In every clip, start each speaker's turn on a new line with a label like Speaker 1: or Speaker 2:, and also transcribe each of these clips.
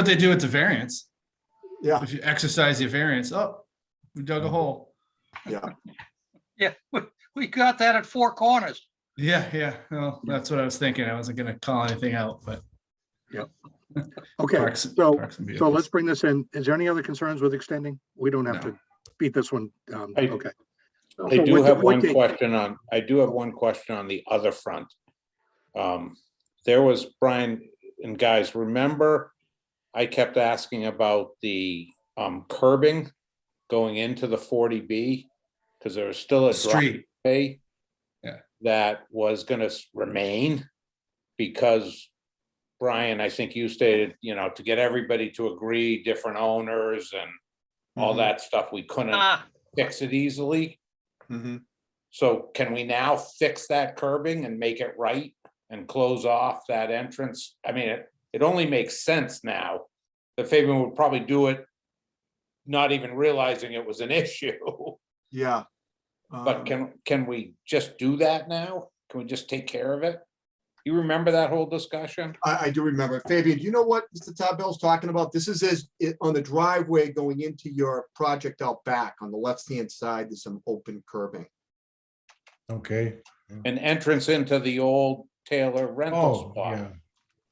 Speaker 1: what they do with the variance.
Speaker 2: Yeah. Mm-hmm.
Speaker 1: If you exercise your variance, oh, we dug a hole.
Speaker 3: Yeah, we, we got that at Four Corners.
Speaker 1: Yeah, yeah. Well, that's what I was thinking. I wasn't gonna call anything out, but.
Speaker 2: Okay,
Speaker 1: Parks-
Speaker 2: so,
Speaker 1: Parks and
Speaker 2: so
Speaker 1: Vehicles.
Speaker 2: let's bring this in. Is there any other concerns with extending? We don't have
Speaker 1: No.
Speaker 2: to beat this one. Um,
Speaker 4: I-
Speaker 2: okay.
Speaker 4: I
Speaker 2: So
Speaker 4: do
Speaker 2: what-
Speaker 4: have
Speaker 2: what
Speaker 4: one
Speaker 2: date?
Speaker 4: question on, I do have one question on the other front. Um, There was, Brian and guys, remember I kept asking about the um, curbing going into the forty B? Because there was still a
Speaker 1: Street.
Speaker 4: driveway
Speaker 1: Yeah.
Speaker 4: that was gonna s- remain because Brian, I think you stated, you know, to get everybody to agree, different owners and
Speaker 1: Mm-hmm.
Speaker 4: all
Speaker 5: Mhm.
Speaker 4: that stuff, we couldn't
Speaker 3: Ah,
Speaker 4: fix it easily.
Speaker 5: Mhm.
Speaker 4: So can we now fix that curbing and make it right and close off that entrance? I mean, it, it only makes sense now. The Fabian would probably do it not even realizing it was an issue,
Speaker 5: Yeah.
Speaker 4: but
Speaker 5: Um,
Speaker 4: can, can we just do that now? Can we just take care of it? You remember that whole discussion?
Speaker 5: I, I do remember. Fabian, do you know what Mr. Tabell's talking about? This is as, it- on the driveway going into your project out back on the left-hand side, there's some open curbing.
Speaker 6: Okay.
Speaker 4: An entrance into the old Taylor rental
Speaker 6: Oh,
Speaker 4: spot.
Speaker 6: yeah.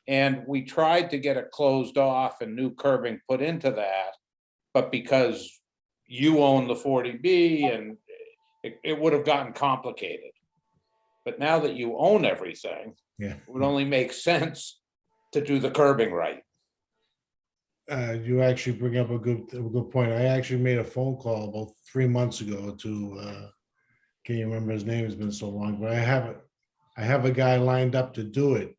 Speaker 4: And we tried to get it closed off and new curbing put into that. But because you own the forty B and it, it would have gotten complicated. But now that you own everything,
Speaker 6: Yeah.
Speaker 4: it would only make sense to do the curbing right.
Speaker 6: Uh, you actually bring up a good, a good point. I actually made a phone call about three months ago to, uh, can't even remember his name, it's been so long, but I have, a- I have a guy lined up to do it.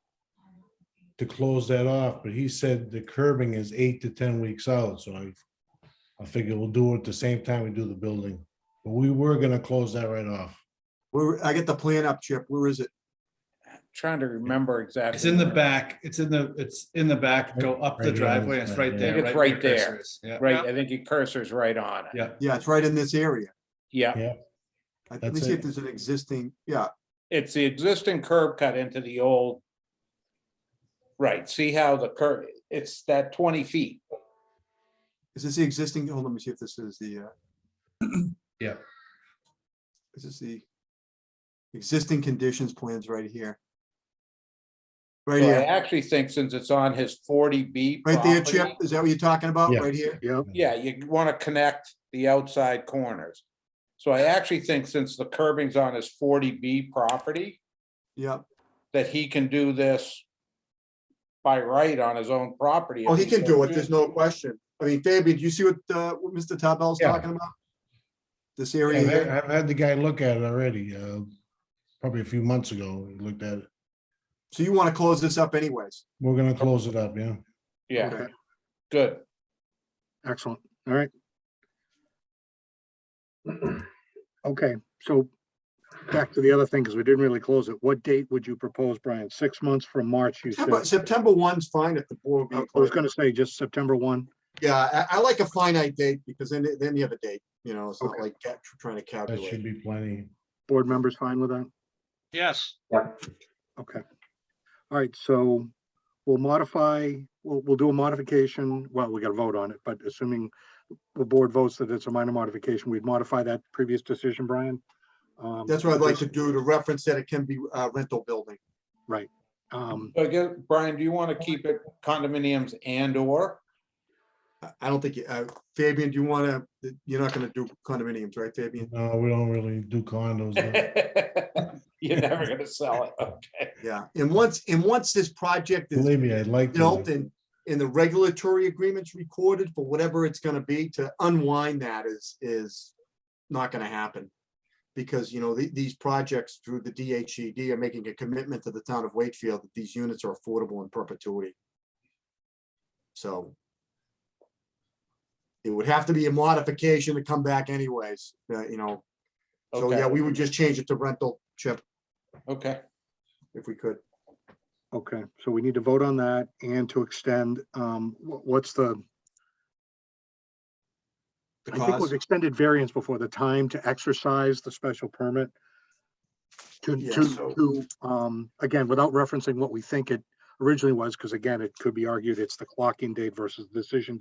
Speaker 6: To close that off, but he said the curbing is eight to ten weeks out, so I, I figure we'll do it at the same time we do the building. But we were gonna close that right off.
Speaker 5: Where, I get the plan up, Chip. Where is it?
Speaker 4: Trying to remember exactly.
Speaker 1: It's in the
Speaker 4: where.
Speaker 1: back. It's in the, it's in the back. Go up the
Speaker 6: Right here on
Speaker 1: driveway. It's
Speaker 6: this side,
Speaker 1: right
Speaker 6: yeah.
Speaker 1: there.
Speaker 4: I think it's
Speaker 1: where
Speaker 4: right
Speaker 1: your
Speaker 4: there.
Speaker 1: cursor is. Yeah,
Speaker 4: Right, I think your cursor's right on it.
Speaker 1: yeah.
Speaker 5: Yeah, it's right in this area.
Speaker 4: Yeah,
Speaker 5: I- Let me
Speaker 6: That's
Speaker 5: see if
Speaker 6: it.
Speaker 5: there's an existing, yeah,
Speaker 4: it's the existing curb cut into the old. Right, see how the curb, it's that twenty feet.
Speaker 5: is this the existing, hold on, let me see if this is the. uh,
Speaker 1: Yeah.
Speaker 5: This is the existing conditions plans right here. Right
Speaker 4: So I
Speaker 5: here.
Speaker 4: actually think since it's on his forty B.
Speaker 5: Right there, Chip, is that what you're talking about,
Speaker 6: Yeah.
Speaker 5: right here?
Speaker 2: Yeah,
Speaker 4: Yeah, you want to connect the outside corners. So I actually think since the curbing's on his forty B property,
Speaker 5: Yep,
Speaker 4: that he can do this by right on his own property.
Speaker 5: oh, he can do it, there's no question. I mean, Fabian, do you see what, uh, what Mr. Tabell's
Speaker 6: Yeah.
Speaker 5: talking about? This area
Speaker 6: I've had-
Speaker 5: here,
Speaker 6: I've had the guy look at it already, uh, probably a few months ago, he looked at it.
Speaker 5: so you wanna close this up anyways?
Speaker 6: We're gonna close it up, yeah.
Speaker 4: Yeah,
Speaker 5: Okay.
Speaker 4: good.
Speaker 2: excellent. All right. Okay, so back to the other thing, because we didn't really close it. What date would you propose, Brian? Six months from March, you said.
Speaker 5: September, September one's fine if the board.
Speaker 2: I was gonna say just September one.
Speaker 5: Yeah, I, I like a finite date because then, then you have a date, you know, it's not
Speaker 2: Okay.
Speaker 5: like ca- trying to
Speaker 6: That should
Speaker 5: calculate.
Speaker 6: be plenty.
Speaker 2: Board members fine with that?
Speaker 3: yes.
Speaker 2: Okay. All right, so we'll modify, we'll, we'll do a modification. Well, we gotta vote on it, but assuming the board votes that it's a minor modification, we'd modify that previous decision, Brian. Um,
Speaker 5: That's what I'd like to do to reference that it can be a rental building.
Speaker 2: Um,
Speaker 4: So I guess, Brian, do you want to keep it condominiums and or?
Speaker 5: I- I don't think, you- uh, Fabian, do you wanna, you're not gonna do condominiums, right, Fabian?
Speaker 6: No, we don't really do condos. no.
Speaker 4: You're never gonna sell it, okay?
Speaker 5: Yeah, and once, and once this project is
Speaker 6: Believe me, I'd like
Speaker 5: built
Speaker 6: to.
Speaker 5: and, and the regulatory agreements recorded for whatever it's gonna be, to unwind that is, is not gonna happen. Because, you know, the, these projects through the DHED are making a commitment to the town of Wakefield that these units are affordable in perpetuity. So it would have to be a modification to come back anyways, uh, you know. So, yeah,
Speaker 4: Okay,
Speaker 5: we would just change it to rental, Chip,
Speaker 4: okay.
Speaker 5: if we could.
Speaker 2: okay, so we need to vote on that and to extend, um, wh- what's the,
Speaker 5: The
Speaker 2: I think it was
Speaker 5: cause,
Speaker 2: extended variance before the time to exercise the special permit. To,
Speaker 5: Yeah,
Speaker 2: to,
Speaker 5: so-
Speaker 2: to, um, again, without referencing what we think it originally was, because again, it could be argued it's the clocking date versus decision